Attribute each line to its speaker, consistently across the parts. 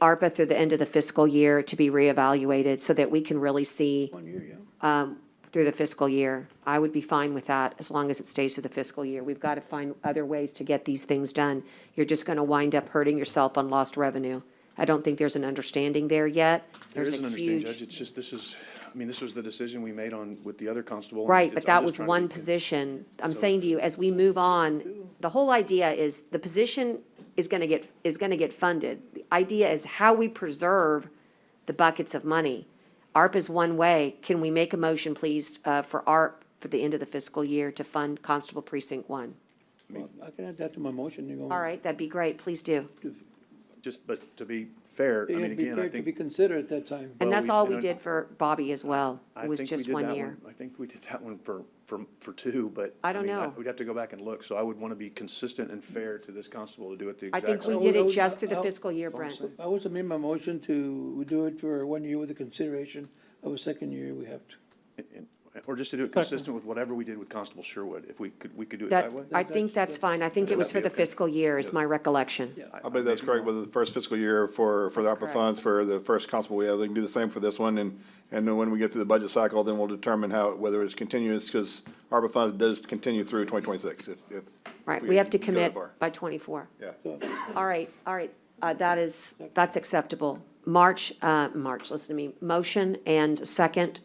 Speaker 1: ARPA through the end of the fiscal year to be reevaluated so that we can really see
Speaker 2: One year, yeah.
Speaker 1: through the fiscal year. I would be fine with that as long as it stays through the fiscal year. We've got to find other ways to get these things done. You're just going to wind up hurting yourself on lost revenue. I don't think there's an understanding there yet.
Speaker 2: There
Speaker 1: There's
Speaker 2: is an
Speaker 1: a
Speaker 2: understanding,
Speaker 1: huge-
Speaker 2: Judge, it's just, this is, I mean, this was the decision we made on, with the other constable. and
Speaker 1: Right,
Speaker 2: it's-
Speaker 1: but
Speaker 2: I'm
Speaker 1: that
Speaker 2: just
Speaker 1: was
Speaker 2: trying to
Speaker 1: one
Speaker 2: be-
Speaker 1: position. I'm
Speaker 2: So-
Speaker 1: saying to you, as we move on, the whole idea is the position is gonna get, is gonna get funded. The idea is how we preserve the buckets of money. ARP is one way. Can we make a motion, please, uh, for ARP for the end of the fiscal year to fund Constable Precinct One?
Speaker 3: Well, I can add that to my motion, you know.
Speaker 1: All right, that'd be great. Please do.
Speaker 2: Just, but to be fair, I
Speaker 3: It'd
Speaker 2: mean,
Speaker 3: be
Speaker 2: again, I
Speaker 3: fair to be
Speaker 2: think,
Speaker 3: considered at that time.
Speaker 1: And
Speaker 2: Well,
Speaker 1: that's
Speaker 2: we-
Speaker 1: all
Speaker 2: and
Speaker 1: we
Speaker 2: I-
Speaker 1: did for Bobby as well.
Speaker 2: I
Speaker 1: It was
Speaker 2: think we
Speaker 1: just
Speaker 2: did
Speaker 1: one
Speaker 2: that
Speaker 1: year.
Speaker 2: one, I think we did that one for, for, for two, but.
Speaker 1: I don't
Speaker 2: mean,
Speaker 1: know.
Speaker 2: We'd have to go back and look, so I would want to be consistent and fair to this constable to do it the
Speaker 1: I
Speaker 2: exact same.
Speaker 1: think we
Speaker 3: So
Speaker 1: did it
Speaker 3: those-
Speaker 1: just through the
Speaker 3: I'll-
Speaker 1: fiscal year, Brent.
Speaker 3: I was amend my motion to do it for one year with the consideration of a second year we have to.
Speaker 2: and- Or just to do it consistent with whatever we did with Constable Sherwood, if we could, we could do it
Speaker 1: That,
Speaker 2: that way?
Speaker 1: I think that's fine. I think it
Speaker 2: That'd
Speaker 1: was for
Speaker 2: be
Speaker 1: the
Speaker 2: okay.
Speaker 1: fiscal year is my recollection.
Speaker 3: Yeah.
Speaker 4: I believe that's correct, with the first fiscal year for, for the
Speaker 1: That's
Speaker 4: ARPA
Speaker 1: correct.
Speaker 4: funds, for the first constable we have, they can do the same for this one, and, and then when we get through the budget cycle, then we'll determine how, whether it's continuous, because ARPA funds does continue through twenty twenty-six, if, if.
Speaker 1: Right,
Speaker 4: if
Speaker 1: we have to
Speaker 4: go that
Speaker 1: commit
Speaker 4: far.
Speaker 1: by 24.
Speaker 4: Yeah.
Speaker 1: All right, all right, uh, that is, that's acceptable. March, uh, March, listen to me, motion and second,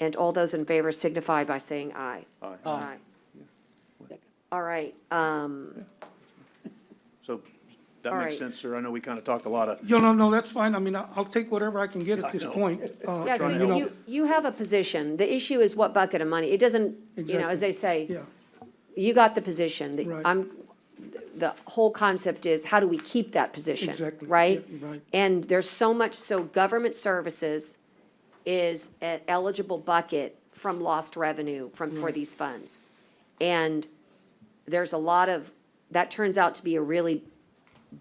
Speaker 1: and all those in favor signify by saying aye. Aye. Aye. All right, um,
Speaker 2: So that
Speaker 1: All
Speaker 2: makes
Speaker 1: right.
Speaker 2: sense, sir. I know we kind of talked a lot of,
Speaker 5: You know, no, that's fine. I mean, I- I'll take whatever I can get at this
Speaker 2: know.
Speaker 5: point. uh,
Speaker 1: yeah, so
Speaker 2: trying to help.
Speaker 1: you, you have a position. The issue is what bucket of money. It doesn't, you know, as they
Speaker 5: Yeah,
Speaker 1: say, you got the position. The-
Speaker 5: Right.
Speaker 1: I'm, the whole concept is how do we keep that position?
Speaker 5: Exactly.
Speaker 1: Right?
Speaker 5: Yeah, right.
Speaker 1: And there's so much, so government services is an eligible bucket from lost revenue from, for these funds. And there's a lot of, that turns out to be a really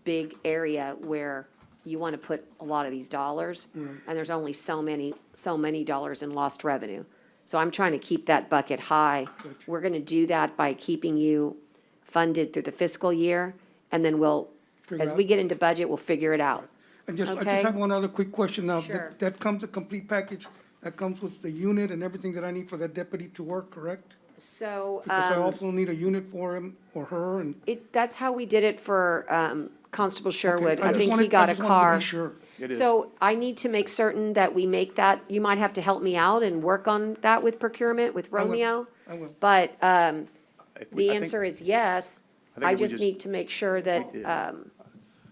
Speaker 1: big area where you want to put a lot of these dollars.
Speaker 5: Mm-hmm.
Speaker 1: And there's only so many, so many dollars in lost revenue. So I'm trying to keep that bucket high. We're going to do that by keeping you funded through the fiscal year. And then we'll,
Speaker 5: Figure
Speaker 1: as
Speaker 5: out.
Speaker 1: we get into budget, we'll figure it out.
Speaker 5: I just, I
Speaker 1: Okay.
Speaker 5: just have one other quick question now. That-
Speaker 1: Sure.
Speaker 5: That comes, a complete package, that comes with the unit and everything that I need for that deputy to work, correct?
Speaker 1: So,
Speaker 5: Because I
Speaker 1: um,
Speaker 5: also need a unit for him or her and.
Speaker 1: it, that's how we did it for, um, Constable Sherwood. I
Speaker 5: Okay, just
Speaker 1: think
Speaker 5: wanted-
Speaker 1: he
Speaker 5: I
Speaker 1: got a
Speaker 5: just wanted to be
Speaker 1: car.
Speaker 5: Sure.
Speaker 2: It is.
Speaker 1: So I need to make certain that we make that, you might have to help me out and work on that with procurement, with
Speaker 5: will.
Speaker 1: Romeo.
Speaker 5: I will.
Speaker 1: But, um,
Speaker 2: if we-
Speaker 1: The
Speaker 2: I think-
Speaker 1: answer is yes.
Speaker 2: I think
Speaker 1: I
Speaker 2: if we
Speaker 1: just
Speaker 2: just-
Speaker 1: need to make sure that,
Speaker 2: did.
Speaker 1: um,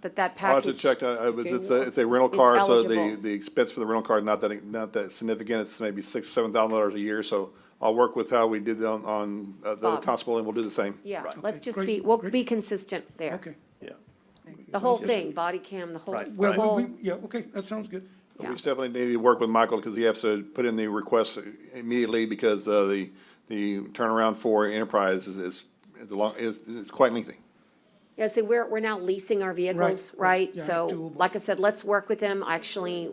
Speaker 1: that that
Speaker 4: I'll have to
Speaker 1: package.
Speaker 4: check, uh, it's, it's a, it's a rental
Speaker 1: Is
Speaker 4: car, so the,
Speaker 1: eligible.
Speaker 4: the expense for the rental car, is not that, not that significant, it's maybe six, seven thousand dollars a year, so I'll work with how we did on, on uh, the
Speaker 1: Bob.
Speaker 4: other constable, and we'll do the same.
Speaker 1: Yeah,
Speaker 2: Right.
Speaker 1: let's
Speaker 5: Okay,
Speaker 1: just
Speaker 5: great,
Speaker 1: be, we'll
Speaker 5: great.
Speaker 1: be consistent there.
Speaker 5: Okay.
Speaker 2: Yeah.
Speaker 1: The whole thing, body cam, the whole,
Speaker 2: Right,
Speaker 1: the
Speaker 5: Well, we-
Speaker 1: whole,
Speaker 5: we, yeah, okay, that sounds good.
Speaker 1: yeah.
Speaker 4: We definitely need to work with Michael because he has to put in the request immediately because uh, the, the turnaround for Enterprise is, is, is a long, is, is quite lengthy.
Speaker 1: Yeah, see, we're, we're now leasing our vehicles,
Speaker 5: right,
Speaker 1: right?
Speaker 5: yeah,
Speaker 1: So,
Speaker 5: doable.
Speaker 1: like I said, let's work with them. Actually,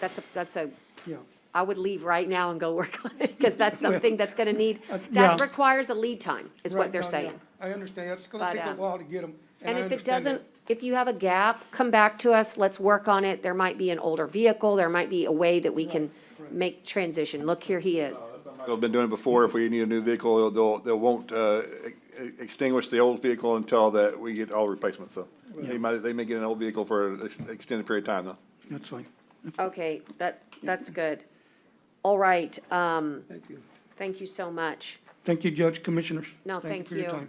Speaker 1: that's a, that's a,
Speaker 5: Yeah.
Speaker 1: I would leave right now and go work on it because that's something that's going to need,
Speaker 5: Uh,
Speaker 1: that
Speaker 5: yeah.
Speaker 1: requires a lead time, is what
Speaker 5: Right,
Speaker 1: they're
Speaker 5: no, yeah,
Speaker 1: saying.
Speaker 5: I understand. It's
Speaker 1: But,
Speaker 5: gonna take a
Speaker 1: um,
Speaker 5: while to get them.
Speaker 1: And
Speaker 5: I
Speaker 1: if it
Speaker 5: understand that.
Speaker 1: doesn't, if you have a gap, come back to us, let's work on it. There might be an older vehicle, there might be a way that we can make transition. Look, here he is.
Speaker 4: They've been doing it before. If we need a new vehicle, they'll, they won't uh, e- extinguish the old vehicle until that we get all replacements, so. They might, they may get an old vehicle for an ex- extended period of time though.
Speaker 5: That's fine.
Speaker 1: Okay, that, that's good. All right, um,
Speaker 3: Thank you.
Speaker 1: thank you so much.
Speaker 5: Thank you, Judge, Commissioners.
Speaker 1: Oh. No, thank
Speaker 5: for your
Speaker 1: you.
Speaker 5: time.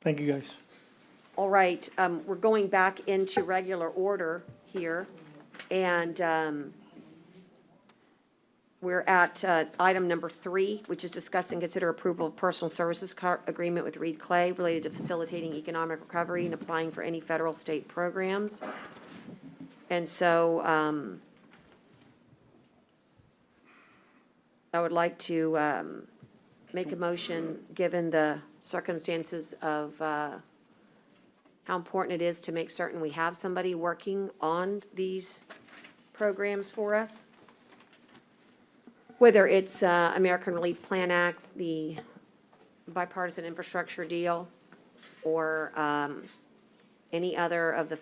Speaker 3: Thank you, guys.
Speaker 1: All right, um, we're going back into regular order here, and, um, we're at, uh, item number three, which is discuss and consider approval of personal services car- agreement with Reed Clay related to facilitating economic recovery and applying for any federal state programs. And so, um, I would like to, um, make a motion, given the circumstances of, uh, how important it is to make certain we have somebody working on these programs for us. Whether it's uh, American Relief Plan Act, the bipartisan infrastructure deal, or um, any other of the